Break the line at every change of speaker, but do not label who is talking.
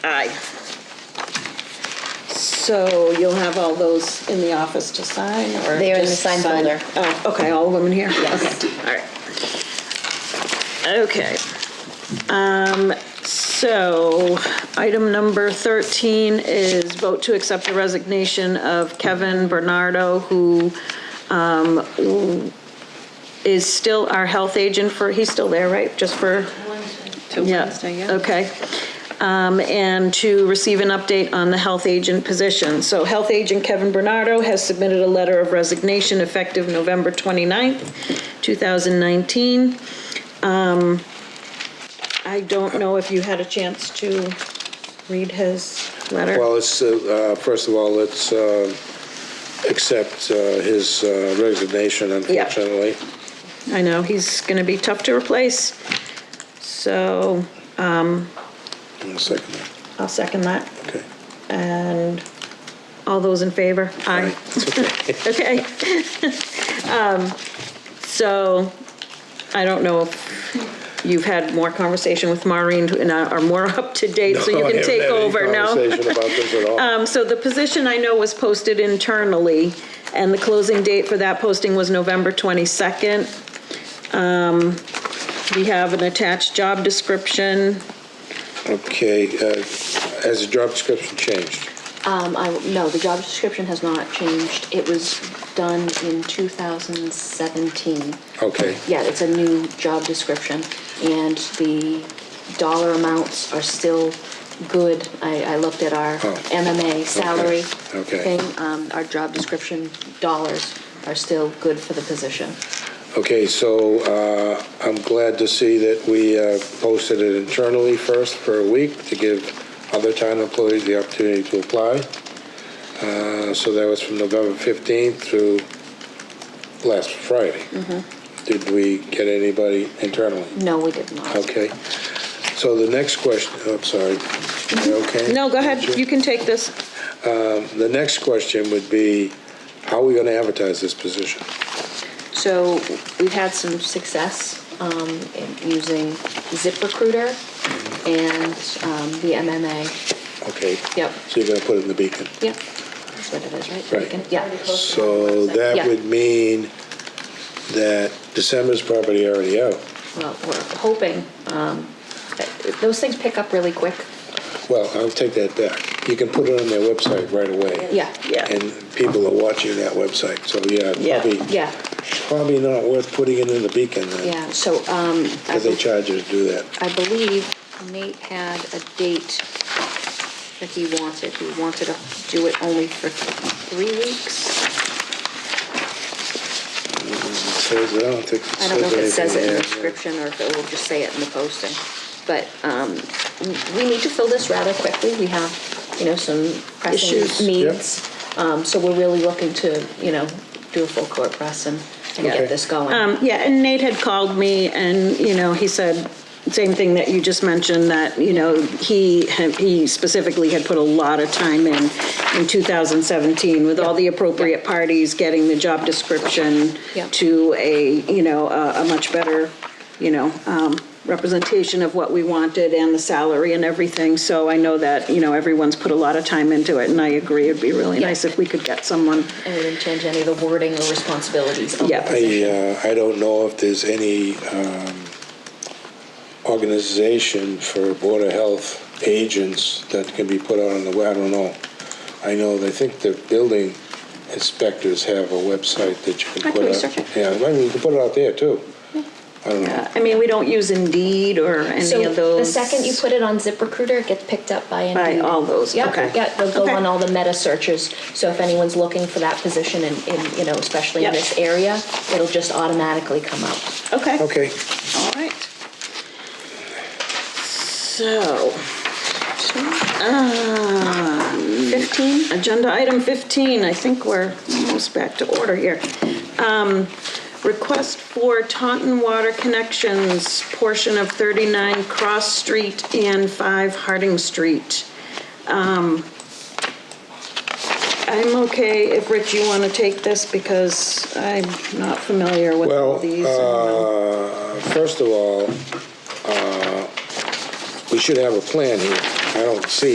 Aye. So you'll have all those in the office to sign or?
They are in the
just
sign folder.
Oh, okay, all of them in here?
Yes.
Okay, All right. Okay. Um, so item number 13 is vote to accept the resignation of Kevin Bernardo, who um, is still our health agent for, he's still there, right? Just for?
Till Wednesday, yeah.
Okay. Um, And to receive an update on the health agent position. So Health Agent Kevin Bernardo has submitted a letter of resignation effective November 29th, 2019. Um, I don't know if you had a chance to read his letter.
Well, it's, uh, uh, first of all, let's uh, accept uh, his uh, resignation, unfortunately.
I know, he's going to be tough to replace. So
One second,
I'll second that.
okay.
And all those in favor? Aye. Okay. Um, So I don't know if you've had more conversation with Maureen and are more up to date, so you
No, I
can
haven't
take
had any
over now.
Conversation about this at all.
Um, So the position I know was posted internally, and the closing date for that posting was November 22nd. Um, We have an attached job description.
Okay, uh, has the job description changed?
Um, I, no, the job description has not changed. It was done in 2017.
Okay,
Yeah, it's a new job description, and the dollar amounts are still good. I, I looked at our
Oh.
MMA salary
okay.
thing. Um, our job description dollars are still good for the position.
okay, so uh, I'm glad to see that we uh, posted it internally first for a week to give other town employees the opportunity to apply. Uh, So that was from November 15th through last Friday.
Mm-hmm.
Did we get anybody internally?
No, we did not.
Okay. So the next question, I'm sorry. You Okay?
Mm-hmm. No, go ahead, you can take this.
The next question would be, how are we going to advertise this position?
So we've had some success um, in using ZipRecruiter
Mm-hmm.
and um, the MMA.
Okay.
Yep.
So you're going to put it in the beacon?
Yep. That's what it is, right?
Right.
Yeah.
So that
Yeah.
would mean that December's probably already out.
Well, we're hoping. um, that- Those things pick up really quick.
Well, I'll take that back. You can put it on their website right away.
Yeah.
Yeah.
And people are watching that website, so yeah,
Yeah.
probably,
Yeah.
probably not worth putting it in the beacon then.
Yeah. So um, I
Because they
bel-
charge you to do that.
I believe Nate had a date that he wanted. He wanted to do it only for three weeks.
It says, I don't think it
I don't know if it says it in the
anything there.
description or if it will just say it in the posting. But um, we need to fill this rather quickly. We have, you know, some pressing
Issues.
needs. Um, So we're really looking to, you know, do a full court press and and
Okay.
get this going.
Um, Yeah, and Nate had called me and, you know, he said, same thing that you just mentioned, that, you know, he, had- he specifically had put a lot of time in, in 2017 with all the appropriate parties, getting the job description
Yeah.
to a, you know, a, a much better, you know, um, representation of what we wanted and the salary and everything. So I know that, you know, everyone's put a lot of time into it and I agree, it'd be really
Yeah.
nice if we could get someone.
And we didn't change any of the wording or responsibilities. of the
Yeah.
position.
I, uh, I don't know if there's any um, organization for Board of Health agents that can be put out on the, web. I don't know. I know, they think the building inspectors have a website that you can put out.
I can research it.
Yeah, I mean, you can put it out there, too. I don't know.
I mean, we don't use Indeed or any of
So the
those.
second you put it on ZipRecruiter, it gets picked up by Indeed.
By all those,
Yep,
okay.
Yeah, they'll go
Okay.
on all the meta searches. So if anyone's looking for that position in, in, you know, especially in
Yep.
this area, it'll just automatically come up.
Okay.
Okay,
All right. So, fifteen, agenda item fifteen, I think we're almost back to order here. Um, Request for Taunton Water Connections portion of thirty-nine Cross Street and five Harding Street. Um, I'm okay if, Rich, you want to take this because I'm not familiar with all
well,
these. and, um,
uh, first of all, uh, we should have a plan here. I don't see